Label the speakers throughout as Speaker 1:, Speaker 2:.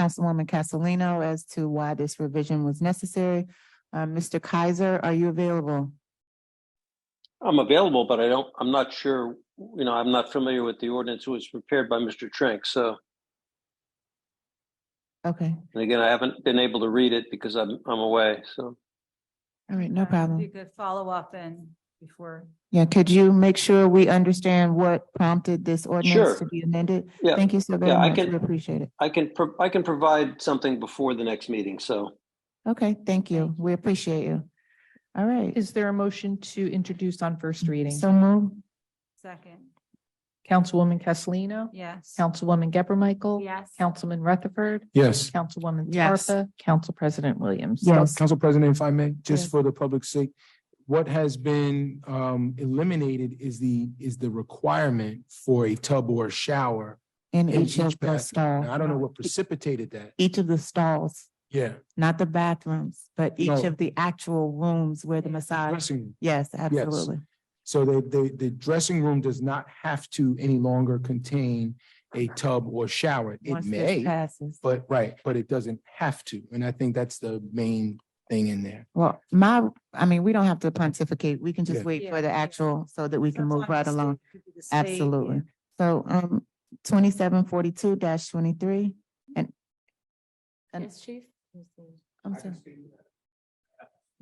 Speaker 1: Councilwoman Castellino as to why this revision was necessary. Uh, Mr. Kaiser, are you available?
Speaker 2: I'm available, but I don't, I'm not sure, you know, I'm not familiar with the ordinance It was prepared by Mr. Trink. So,
Speaker 1: Okay,
Speaker 2: and again, I haven't been able to read it because I'm, I'm away. So
Speaker 1: all right, no
Speaker 3: Uh, If you
Speaker 1: problem.
Speaker 3: could follow up and before,
Speaker 1: Yeah, could you make sure we understand what prompted this ordinance
Speaker 2: Sure.
Speaker 1: to be amended?
Speaker 2: Yeah.
Speaker 1: Thank you so very
Speaker 2: Yeah, I
Speaker 1: much.
Speaker 2: can-
Speaker 1: We appreciate it.
Speaker 2: I can, pro- I can provide something before the next meeting. So
Speaker 1: Okay, thank you. We appreciate you. All right,
Speaker 4: Is there a motion to introduce on
Speaker 3: Mm,
Speaker 4: first reading?
Speaker 1: so move.
Speaker 3: second,
Speaker 4: Councilwoman Castellino?
Speaker 3: yes.
Speaker 4: Councilwoman Geber Michael?
Speaker 3: Yes.
Speaker 4: Councilman Rutherford?
Speaker 5: Yes.
Speaker 4: Councilwoman
Speaker 6: Yes.
Speaker 4: Scarpa? Council President Williams?
Speaker 1: Yes,
Speaker 5: Council President, if I may,
Speaker 1: Yes.
Speaker 5: just for the public's sake, what has been um eliminated is the, is the requirement for a tub or shower.
Speaker 1: in
Speaker 5: in
Speaker 1: each of the
Speaker 5: bathroom.
Speaker 1: stalls. E,
Speaker 5: Now, I don't know what precipitated that.
Speaker 1: Each of the stalls,
Speaker 5: Yeah.
Speaker 1: not the bathrooms, but each
Speaker 5: No.
Speaker 1: of the actual rooms where the
Speaker 3: Yeah.
Speaker 1: massage.
Speaker 5: Dressing room.
Speaker 1: Yes, absolutely.
Speaker 5: So the, the, the dressing room does not have to any longer contain a tub or shower. It
Speaker 1: Once this
Speaker 5: may,
Speaker 1: Passes.
Speaker 5: but, right, but it doesn't have to. And I think that's the main thing in there.
Speaker 1: Well, my, I mean, we don't have to pontificate. We can just
Speaker 5: Yeah.
Speaker 1: wait for
Speaker 3: Yeah,
Speaker 1: the
Speaker 3: yeah.
Speaker 1: actual so that we can move right
Speaker 3: Sometimes the
Speaker 1: along.
Speaker 3: state could be the state,
Speaker 1: Absolutely. So, um, twenty-seven forty-two twenty-three and.
Speaker 3: yeah.
Speaker 1: and- I'm sorry.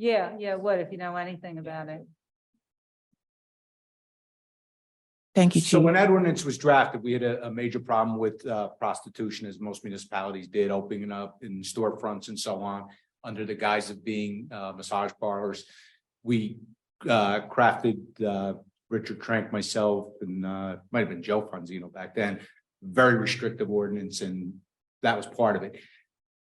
Speaker 3: Yeah, yeah, what if you know anything about it?
Speaker 1: Thank you,
Speaker 7: So
Speaker 1: Chief.
Speaker 7: when that ordinance was drafted, we had a, a major problem with uh, prostitution, as most municipalities did, opening up in storefronts and so on, under the guise of being uh, massage parlors. We uh, crafted, uh, Richard Trank, myself, and uh, might have been Joe Franzino back then, very restrictive ordinance, and that was part of it.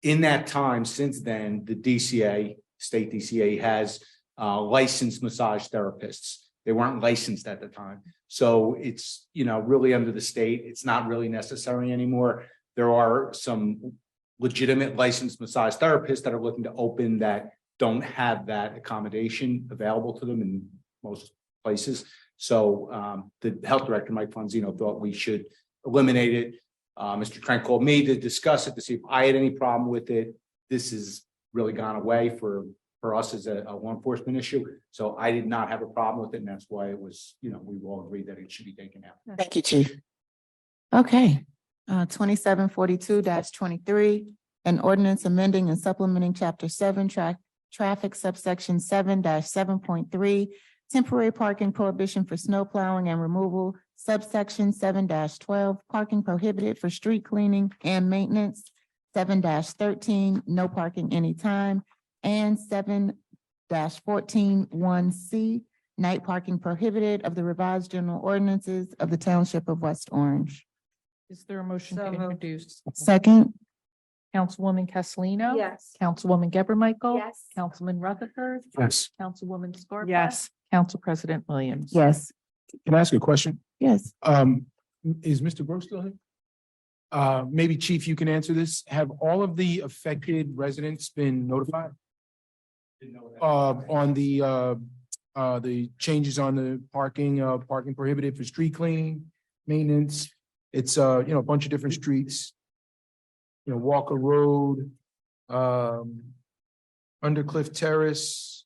Speaker 7: In that time, since then, the DCA, state DCA has uh, licensed massage therapists. They weren't licensed at the time. So it's, you know, really under the state, it's not really necessary anymore. There are some legitimate licensed massage therapists that are looking to open that don't have that accommodation available to them in most places. So um, the health director, Mike Fonzino, thought we should eliminate it. Uh, Mr. Trent called me to discuss it, to see if I had any problem with it. This has really gone away for, for us as a a law enforcement issue. So I did not have a problem with it, and that's why it was, you know, we all agreed that it should be taken out.
Speaker 1: Thank you, Chief. Okay, uh, twenty-seven forty-two twenty-three, an ordinance amending and supplementing chapter seven, track, traffic subsection seven seven point three, temporary parking prohibition for snow plowing and removal, subsection seven twelve, parking prohibited for street cleaning and maintenance, seven thirteen, no parking anytime, and seven 14 fourteen one C, night parking prohibited of the revised general ordinances of the township of West Orange.
Speaker 4: Is there a motion to
Speaker 3: So moved.
Speaker 4: introduce?
Speaker 1: Second,
Speaker 4: Councilwoman Castellino?
Speaker 3: Yes.
Speaker 4: Councilwoman Geber Michael?
Speaker 3: Yes.
Speaker 4: Councilman Rutherford?
Speaker 5: Yes.
Speaker 4: Councilwoman Scarpa?
Speaker 6: Yes.
Speaker 4: Council President Williams?
Speaker 1: yes,
Speaker 5: Can I ask a question?
Speaker 1: yes.
Speaker 5: Um, is Mr. Gross still here? Uh, maybe Chief, you can answer this. Have all of the affected residents been notified? Uh, on the, uh, uh, the changes on the parking, uh, parking prohibited for street cleaning, maintenance? It's, uh, you know, a bunch of different streets. You know, Walker Road, um, Undercliff Terrace.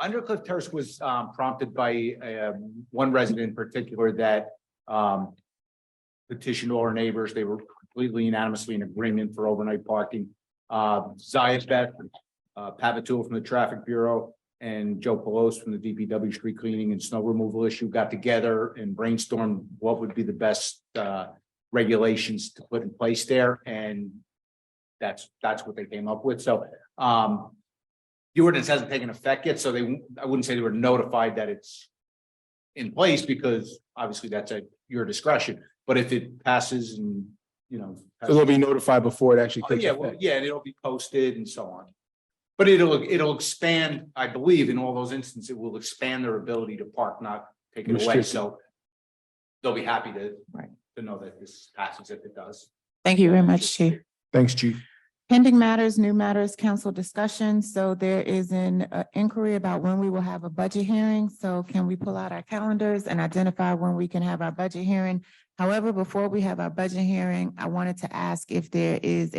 Speaker 7: Undercliff Terrace was um, prompted by um, one resident in particular that um, petitioned all our neighbors. They were completely unanimously in agreement for overnight parking. Uh, Zayas Beth, uh, Pavatul from the Traffic Bureau, and Joe Pelos from the DPW Street Cleaning and Snow Removal Issue got together and brainstormed what would be the best uh, regulations to put in place there, and that's, that's what they came up with. So um, the ordinance hasn't taken effect yet, so they, I wouldn't say they were notified that it's in place because obviously that's at your discretion, but if it passes and, you know.
Speaker 5: So they'll be notified before it actually
Speaker 7: Oh,
Speaker 5: takes
Speaker 7: Yeah, well,
Speaker 5: effect.
Speaker 7: yeah, and it'll be posted and so on. But it'll, it'll expand, I believe, in all those instances, it will expand their ability to park, not take it away,
Speaker 5: Restricted.
Speaker 7: so they'll be happy to
Speaker 1: Right.
Speaker 7: to know that this passes if it does.
Speaker 1: Thank you very much, Chief.
Speaker 5: Thanks, Chief.
Speaker 1: Pending matters, new matters, council discussion. So there is an uh, inquiry about when we will have a budget hearing. So can we pull out our calendars and identify when we can have our budget hearing? However, before we have our budget hearing, I wanted to ask if there is